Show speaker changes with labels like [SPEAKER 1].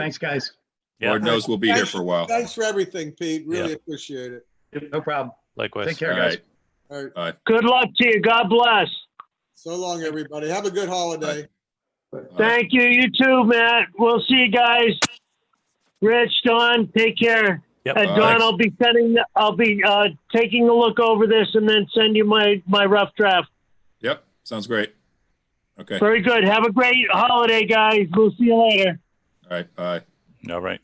[SPEAKER 1] Thanks, guys.
[SPEAKER 2] Yeah,
[SPEAKER 3] Lord knows we'll be here for a while.
[SPEAKER 4] Thanks for everything, Pete. Really
[SPEAKER 2] Yeah.
[SPEAKER 4] appreciate it.
[SPEAKER 1] No problem. Take
[SPEAKER 2] likewise.
[SPEAKER 1] care,
[SPEAKER 3] All
[SPEAKER 1] guys.
[SPEAKER 3] right.
[SPEAKER 4] All right.
[SPEAKER 5] Good luck to you. God bless.
[SPEAKER 4] So long, everybody. Have a good holiday.
[SPEAKER 5] Thank you. You too, Matt. We'll see you guys. Rich, Don, take care.
[SPEAKER 2] Yep.
[SPEAKER 5] And Don,
[SPEAKER 3] Thanks.
[SPEAKER 5] I'll be sending. I'll be uh, taking a look over this and then send you my my rough draft.
[SPEAKER 3] Yep, sounds great. Okay, all
[SPEAKER 5] Very good. Have a great holiday, guys. We'll see you later.
[SPEAKER 3] right, bye.
[SPEAKER 2] All right.